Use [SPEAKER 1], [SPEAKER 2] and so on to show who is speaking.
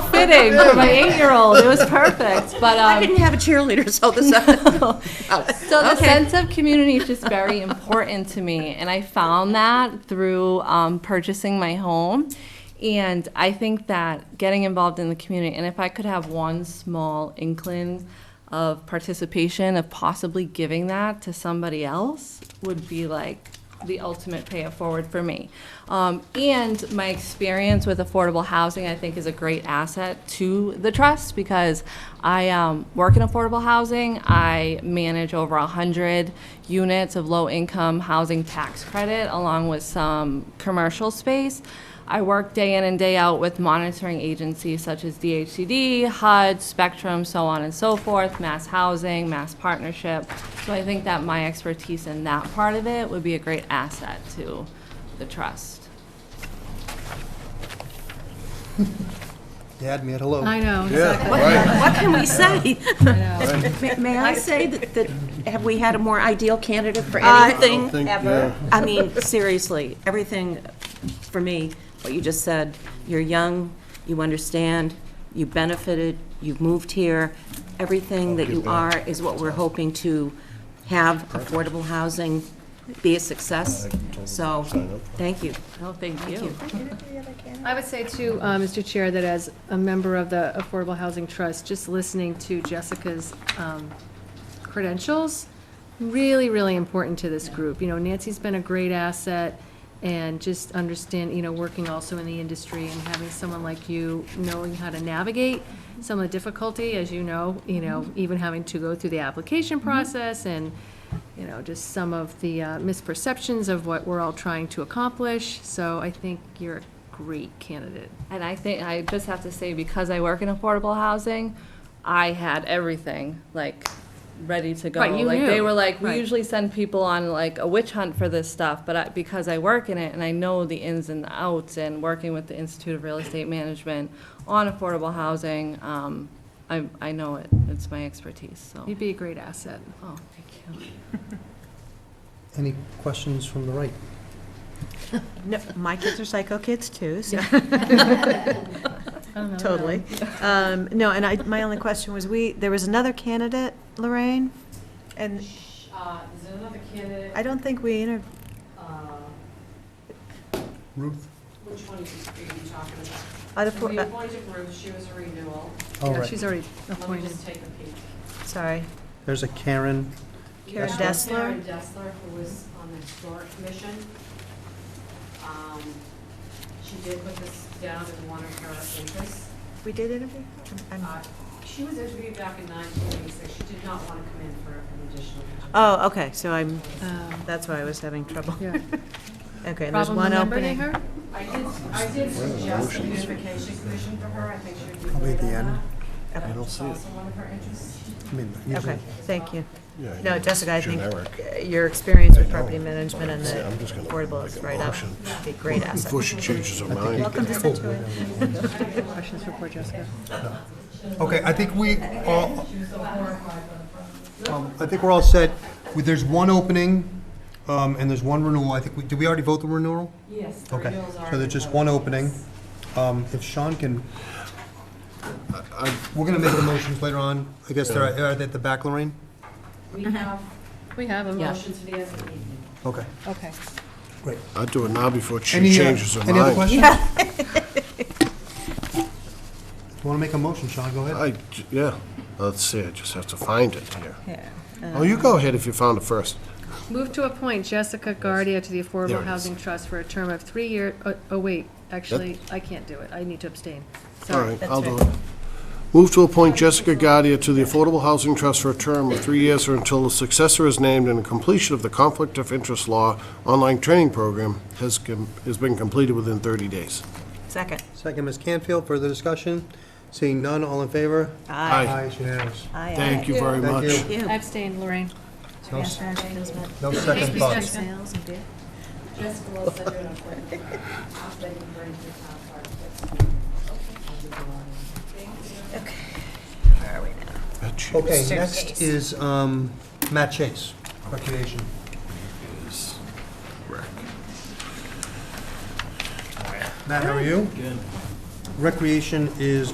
[SPEAKER 1] fitting for my eight-year-old. It was perfect, but,
[SPEAKER 2] I
[SPEAKER 1] um,
[SPEAKER 2] didn't have a cheerleader, so this.
[SPEAKER 1] So the
[SPEAKER 2] Okay.
[SPEAKER 1] sense of community is just very important to me, and I found that through um, purchasing my home. And I think that getting involved in the community, and if I could have one small inkling of participation, of possibly giving that to somebody else, would be like the ultimate pay it forward for me. Um, and my experience with affordable housing, I think, is a great asset to the trust because I um, work in affordable housing. I manage over 100 units of low income housing tax credit along with some commercial space. I work day in and day out with monitoring agencies such as DHCD, HUD, Spectrum, so on and so forth, Mass Housing, Mass Partnership. So I think that my expertise in that part of it would be a great asset to the trust.
[SPEAKER 3] You had me at hello.
[SPEAKER 4] I know, exactly.
[SPEAKER 2] What can we say?
[SPEAKER 4] I know.
[SPEAKER 2] May- May I say that, that have we had a more ideal candidate for
[SPEAKER 3] I don't
[SPEAKER 2] anything
[SPEAKER 3] think-
[SPEAKER 2] ever? I mean, seriously, everything, for me, what you just said, you're young, you understand, you benefited, you've moved here, everything that you are is what we're hoping to have affordable housing be a success. So, thank you.
[SPEAKER 1] Oh, thank you.
[SPEAKER 4] I would say too, uh, Mr. Chair, that as a member of the Affordable Housing Trust, just listening to Jessica's um, credentials, really, really important to this group. You know, Nancy's been a great asset, and just understand, you know, working also in the industry and having someone like you knowing how to navigate some of the difficulty, as you know, you know, even having to go through the application process and, you know, just some of the uh, misperceptions of what we're all trying to accomplish. So I think you're a great candidate.
[SPEAKER 1] And I think, I just have to say, because I work in affordable housing, I had everything, like, ready to go.
[SPEAKER 4] Right, you
[SPEAKER 1] Like, they
[SPEAKER 4] knew.
[SPEAKER 1] were like, we
[SPEAKER 4] Right.
[SPEAKER 1] usually send people on like a witch hunt for this stuff, but I, because I work in it and I know the ins and outs and working with the Institute of Real Estate Management on affordable housing, um, I, I know it. It's my expertise, so.
[SPEAKER 4] You'd be a great asset.
[SPEAKER 1] Oh, thank you.
[SPEAKER 3] Any questions from the right?
[SPEAKER 5] No, my kids are psycho kids too, so
[SPEAKER 4] I don't know,
[SPEAKER 5] totally. Um, No, and I, my only question was, we, there was another candidate, Lorraine, and
[SPEAKER 6] uh,
[SPEAKER 1] Is another candidate?
[SPEAKER 5] I don't think we inter,
[SPEAKER 3] Ruth?
[SPEAKER 6] Which one are you talking about?
[SPEAKER 5] I don't-
[SPEAKER 6] We appointed Ruth, she was a renewal.
[SPEAKER 3] All
[SPEAKER 4] Yeah,
[SPEAKER 3] right.
[SPEAKER 4] She's already
[SPEAKER 6] Let me
[SPEAKER 4] appointed.
[SPEAKER 6] just take a peek.
[SPEAKER 5] sorry.
[SPEAKER 3] There's a Karen.
[SPEAKER 5] Karen
[SPEAKER 6] Yeah,
[SPEAKER 5] Dessler?
[SPEAKER 6] Karen Dessler, who was on the historic commission. Um, She did put this down in one of her interests.
[SPEAKER 5] We did interview? I'm-
[SPEAKER 6] Uh, She was interviewed back in 1986, she did not want to come in for an additional.
[SPEAKER 5] Oh, okay, so I'm,
[SPEAKER 4] Um,
[SPEAKER 5] that's why I was having trouble.
[SPEAKER 4] yeah.
[SPEAKER 5] Okay, and there's
[SPEAKER 4] Problem
[SPEAKER 5] one
[SPEAKER 4] remembering
[SPEAKER 5] opening.
[SPEAKER 4] her?
[SPEAKER 6] I did, I did suggest a beautification commission for her, I think she would be.
[SPEAKER 3] Probably at the end.
[SPEAKER 5] Okay.
[SPEAKER 6] It's also one of her interests.
[SPEAKER 3] I mean, usually-
[SPEAKER 5] Okay, thank you.
[SPEAKER 7] Yeah,
[SPEAKER 5] No, Jessica, I think
[SPEAKER 7] generic.
[SPEAKER 5] uh, your experience with
[SPEAKER 7] I know.
[SPEAKER 5] property management and
[SPEAKER 7] Yeah, I'm just
[SPEAKER 5] the
[SPEAKER 7] gonna
[SPEAKER 5] affordable
[SPEAKER 7] make
[SPEAKER 5] is
[SPEAKER 7] a
[SPEAKER 5] right up.
[SPEAKER 7] motion.
[SPEAKER 5] Be a great asset.
[SPEAKER 7] Before she changes her mind.
[SPEAKER 5] Welcome to Situate.
[SPEAKER 4] Questions for poor Jessica.
[SPEAKER 3] Okay, I think we all, um, I think we're all set. We- There's one opening, um, and there's one renewal. I think, we did we already vote the renewal?
[SPEAKER 6] Yes, the
[SPEAKER 3] Okay,
[SPEAKER 6] renewals are.
[SPEAKER 3] so there's just one opening. Um, If Sean can, we're going to make the motions later on. I guess they're, are they at the back, Lorraine?
[SPEAKER 6] We
[SPEAKER 5] Uh-huh.
[SPEAKER 6] have
[SPEAKER 4] We have a motion.
[SPEAKER 6] motions for the end of the evening.
[SPEAKER 3] Okay,
[SPEAKER 4] Okay.
[SPEAKER 3] great.
[SPEAKER 7] I'd do it now before she
[SPEAKER 3] Any, uh,
[SPEAKER 7] changes her mind.
[SPEAKER 3] Any other questions? You want to make a motion, Sean, go ahead.
[SPEAKER 7] I j- yeah, let's see, I just have to find it here.
[SPEAKER 5] Yeah. um,
[SPEAKER 7] Oh, you go ahead if you found it first.
[SPEAKER 4] Move to appoint Jessica Guardia to the
[SPEAKER 7] There it
[SPEAKER 4] Affordable
[SPEAKER 7] is.
[SPEAKER 4] Housing Trust for a term of three year, oh, oh, wait, actually, I can't do it. I need to abstain.
[SPEAKER 7] All
[SPEAKER 4] Sorry.
[SPEAKER 7] right, Uh, I'll do it. Move to appoint Jessica Guardia to the Affordable Housing Trust for a term of three years or until a successor is named and the completion of the Conflict of Interest Law online training program has, com- has been completed within 30 days.
[SPEAKER 5] Second.
[SPEAKER 3] Second, Ms. Canfield, further discussion? Seeing none, all in favor?
[SPEAKER 7] Aye.
[SPEAKER 3] Aye, it's unanimous.
[SPEAKER 5] Aye, aye.
[SPEAKER 7] Thank you very
[SPEAKER 3] Thank
[SPEAKER 7] much.
[SPEAKER 3] you.
[SPEAKER 4] I abstained, Lorraine.
[SPEAKER 3] No s- No second thoughts.
[SPEAKER 6] Jessica will send you an appointment. I'll send you bring to the town clerk.
[SPEAKER 3] Okay, next is um, Matt Chase, Recreation. Matt, how are you? Good. Recreation is